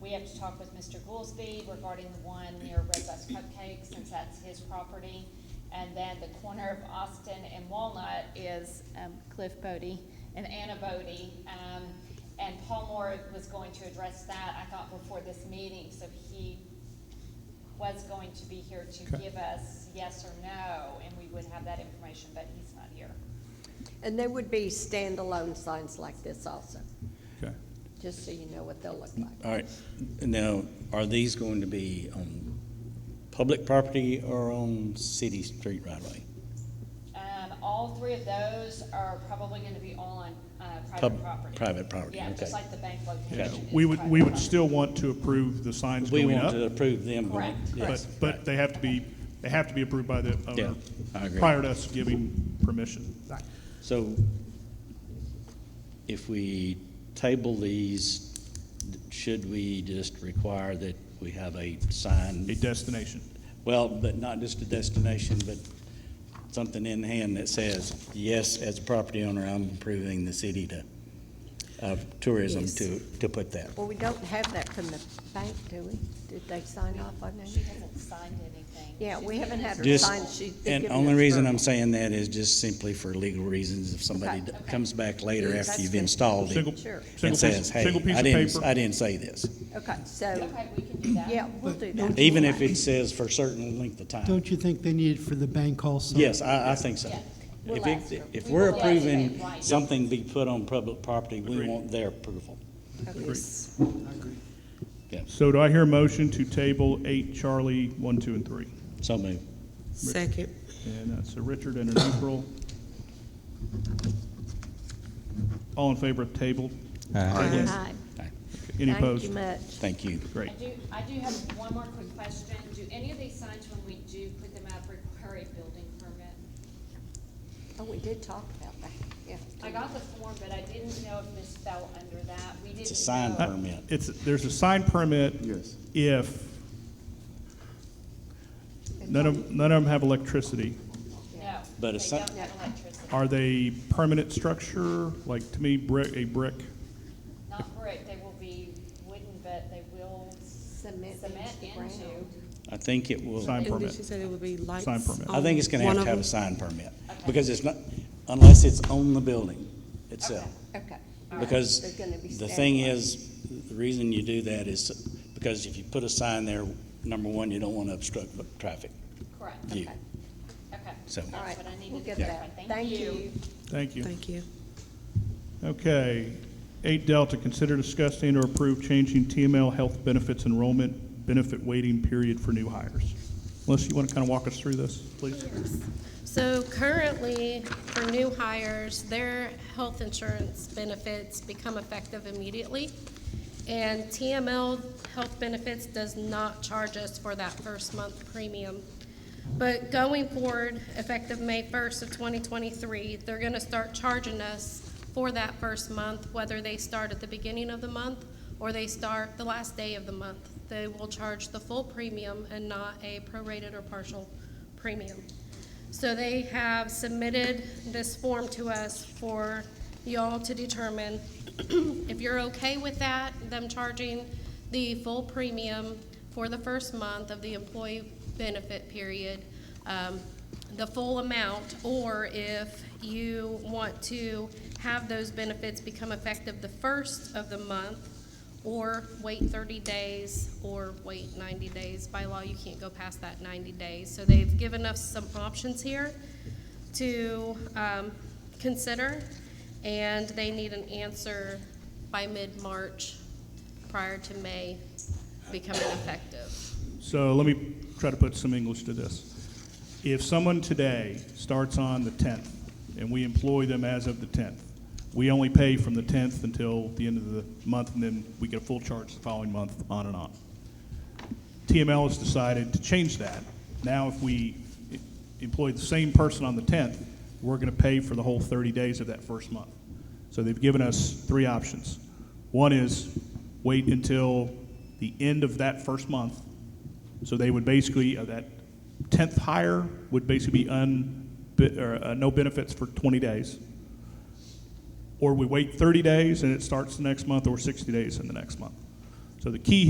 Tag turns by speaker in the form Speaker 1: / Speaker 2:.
Speaker 1: We have to talk with Mr. Goolsby regarding the one near Red Bus Cupcake, since that's his property. And then the corner of Austin and Walnut is um, Cliff Bodie and Anna Bodie. Um, And Paul Moore was going to address that, I thought, before this meeting, so he was going to be here to
Speaker 2: Okay.
Speaker 1: give us yes or no, and we would have that information, but he's not here.
Speaker 3: And there would be standalone signs like this also,
Speaker 2: Okay.
Speaker 3: just so you know what they'll look like.
Speaker 4: All right, now, are these going to be on public property or on city street right away?
Speaker 1: Um, all three of those are probably gonna be all on, uh, private
Speaker 4: Pub-
Speaker 1: property.
Speaker 4: private property,
Speaker 1: Yeah, just
Speaker 4: okay.
Speaker 1: like the bank
Speaker 2: Yeah,
Speaker 1: location. is
Speaker 2: We would,
Speaker 1: private
Speaker 2: we would
Speaker 1: property.
Speaker 2: still want to approve the signs
Speaker 4: We
Speaker 2: going
Speaker 4: want
Speaker 2: up,
Speaker 4: to approve them. going-
Speaker 1: Correct,
Speaker 2: but,
Speaker 4: Yes.
Speaker 2: but they have to be, they have to be approved by the
Speaker 4: Yeah,
Speaker 2: owner
Speaker 4: I agree.
Speaker 2: prior to us giving permission.
Speaker 4: So if we table these, should we just require that we have a
Speaker 2: A
Speaker 4: sign?
Speaker 2: destination.
Speaker 4: Well, but not just a destination, but something in hand that says, yes, as a property owner, I'm approving the city to, of tourism
Speaker 3: Yes.
Speaker 4: to, to put that.
Speaker 3: Well, we don't have that from the bank, do we? Did they sign off on
Speaker 1: She
Speaker 3: that?
Speaker 1: hasn't signed anything.
Speaker 3: Yeah, we
Speaker 1: She's
Speaker 3: haven't
Speaker 1: given
Speaker 3: had
Speaker 1: us-
Speaker 3: her
Speaker 4: Just,
Speaker 3: sign sheet. They've
Speaker 4: and
Speaker 3: given
Speaker 4: only
Speaker 3: us
Speaker 4: reason
Speaker 3: her-
Speaker 4: I'm saying that is just simply for legal reasons, if somebody
Speaker 3: Okay.
Speaker 4: d- comes back later
Speaker 3: Yeah,
Speaker 4: after
Speaker 3: that's
Speaker 4: you've
Speaker 3: good.
Speaker 4: installed
Speaker 2: Single,
Speaker 4: it
Speaker 3: Sure.
Speaker 2: single
Speaker 4: and says,
Speaker 2: piece,
Speaker 4: hey,
Speaker 2: single piece
Speaker 4: I
Speaker 2: of
Speaker 4: didn't, I
Speaker 2: paper.
Speaker 4: didn't say this.
Speaker 3: Okay, so,
Speaker 1: Okay, we can do that.
Speaker 3: yeah, we'll do that.
Speaker 4: Even if it says for a certain length of time.
Speaker 5: Don't you think they need it for the bank also?
Speaker 4: Yes, I, I think so.
Speaker 1: Yes.
Speaker 3: We'll
Speaker 4: If
Speaker 3: ask
Speaker 4: it,
Speaker 3: them.
Speaker 4: if
Speaker 1: We
Speaker 4: we're
Speaker 1: will ask them,
Speaker 4: approving
Speaker 1: right.
Speaker 4: something be put on public property, we
Speaker 2: Agreed.
Speaker 4: want their approval.
Speaker 3: Yes.
Speaker 2: So do I hear a motion to table eight Charlie, one, two, and three?
Speaker 4: So moved.
Speaker 6: Second.
Speaker 2: And that's a Richard and an April. All in favor of table?
Speaker 6: Uh, Aye.
Speaker 3: Hi.
Speaker 2: Any
Speaker 3: Thank you
Speaker 2: opposed?
Speaker 3: much.
Speaker 4: Thank you.
Speaker 2: Great.
Speaker 1: I do, I do have one more quick question. Do any of these signs, when we do put them up, require a building permit?
Speaker 3: Oh, we did talk about that, yeah.
Speaker 1: I got the form, but I didn't know if this fell under that. We didn't.
Speaker 4: It's a sign
Speaker 1: know.
Speaker 4: permit.
Speaker 2: Uh, It's, there's a sign permit.
Speaker 7: Yes.
Speaker 2: If none of, none of them have electricity.
Speaker 1: No.
Speaker 4: But a
Speaker 1: they
Speaker 4: sign-
Speaker 1: don't have electricity.
Speaker 2: Are they permanent structure? Like, to me, brick, a brick,
Speaker 1: Not brick, they will be wooden, but they will
Speaker 3: Cement
Speaker 1: cement
Speaker 3: into the
Speaker 1: into.
Speaker 3: ground.
Speaker 4: I think it will,
Speaker 2: sign
Speaker 6: And did she
Speaker 2: permit?
Speaker 6: say it would be lights?
Speaker 2: Sign permit.
Speaker 4: I think it's gonna
Speaker 6: on
Speaker 4: have
Speaker 6: one
Speaker 4: to have a
Speaker 6: of
Speaker 4: sign permit.
Speaker 1: Okay.
Speaker 4: Because it's not, unless it's on the building itself.
Speaker 3: Okay.
Speaker 4: Because
Speaker 3: They're gonna be
Speaker 4: the thing
Speaker 3: standalone.
Speaker 4: is, the reason you do that is because if you put a sign there, number one, you don't want to obstruct the traffic
Speaker 1: Correct, okay,
Speaker 4: view. So-
Speaker 1: that's
Speaker 3: All right,
Speaker 1: what I
Speaker 3: we'll
Speaker 1: needed to
Speaker 3: get
Speaker 1: clarify.
Speaker 3: that.
Speaker 1: Thank you.
Speaker 2: Thank
Speaker 6: them.
Speaker 2: you.
Speaker 6: Thank you.
Speaker 2: Okay. Eight Delta, consider discussing or approve changing TML health benefits enrollment benefit waiting period for new hires. Melissa, you want to kind of walk us through this, please?
Speaker 8: So currently, for new hires, their health insurance benefits become effective immediately. And TML Health Benefits does not charge us for that first month premium. But going forward, effective May 1st of 2023, they're going to start charging us for that first month, whether they start at the beginning of the month or they start the last day of the month. They will charge the full premium and not a prorated or partial premium. So they have submitted this form to us for y'all to determine if you're okay with that, them charging the full premium for the first month of the employee benefit period, um, the full amount, or if you want to have those benefits become effective the first of the month, or wait 30 days, or wait 90 days. By law, you can't go past that 90 days. So they've given us some options here to um, consider, and they need an answer by mid-March prior to May becoming effective.
Speaker 2: So let me try to put some English to this. If someone today starts on the 10th and we employ them as of the 10th, we only pay from the 10th until the end of the month and then we get a full charge the following month, on and on. TML has decided to change that. Now, if we e- employ the same person on the 10th, we're going to pay for the whole 30 days of that first month. So they've given us three options. One is wait until the end of that first month. So they would basically, uh, that 10th hire would basically be un, be- or, uh, no benefits for 20 days. Or we wait 30 days and it starts the next month, or 60 days in the next month. So the key